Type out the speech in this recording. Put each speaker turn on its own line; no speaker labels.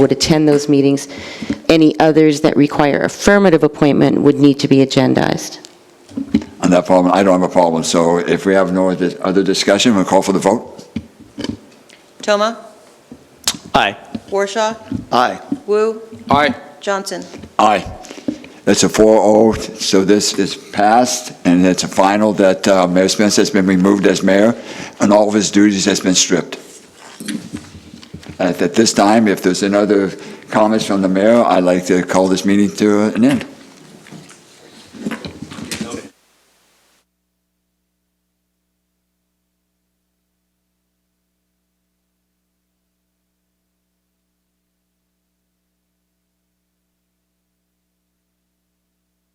would attend those meetings. Any others that require affirmative appointment would need to be agendized.
On that problem, I don't have a problem, so if we have no other other discussion, we'll call for the vote.
Toma.
Aye.
Warshaw.
Aye.
Woo.
Aye.
Johnson.
Aye. That's a 4-0, so this is passed, and it's a final that uh, Mayor Spence has been removed as mayor, and all of his duties has been stripped. At at this time, if there's any other comments from the mayor, I'd like to call this meeting to an end.